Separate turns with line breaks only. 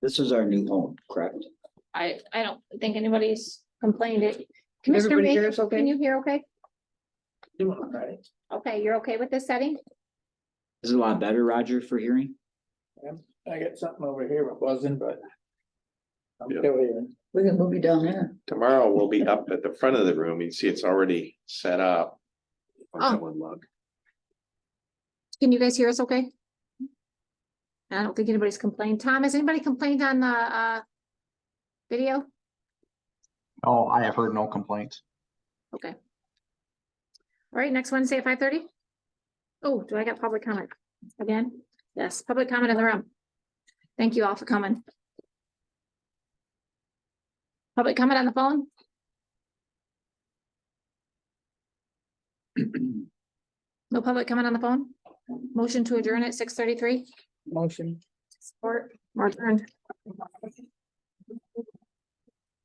This is our new home, correct?
I, I don't think anybody's complained it. Commissioner
Everybody here
Mayhew,
is okay?
can you hear okay?
It's
Okay, you're okay with this setting?
This is a lot better, Roger, for hearing.
I got something over here, it wasn't, but. I'm
Yeah.
still here.
We can move you down there.
Tomorrow we'll be up at the front of the room. You see it's already set up.
Oh.
One lug.
Can you guys hear us okay? I don't think anybody's complained. Tom, has anybody complained on the, uh, video?
Oh, I have heard no complaints.
All right, next Wednesday at five thirty? Oh, do I get public comment again? Yes, public comment in the room. Thank you all for coming. Public comment on the phone? No public comment on the phone? Motion to adjourn at six thirty-three?
Motion.
Support. We're adjourned.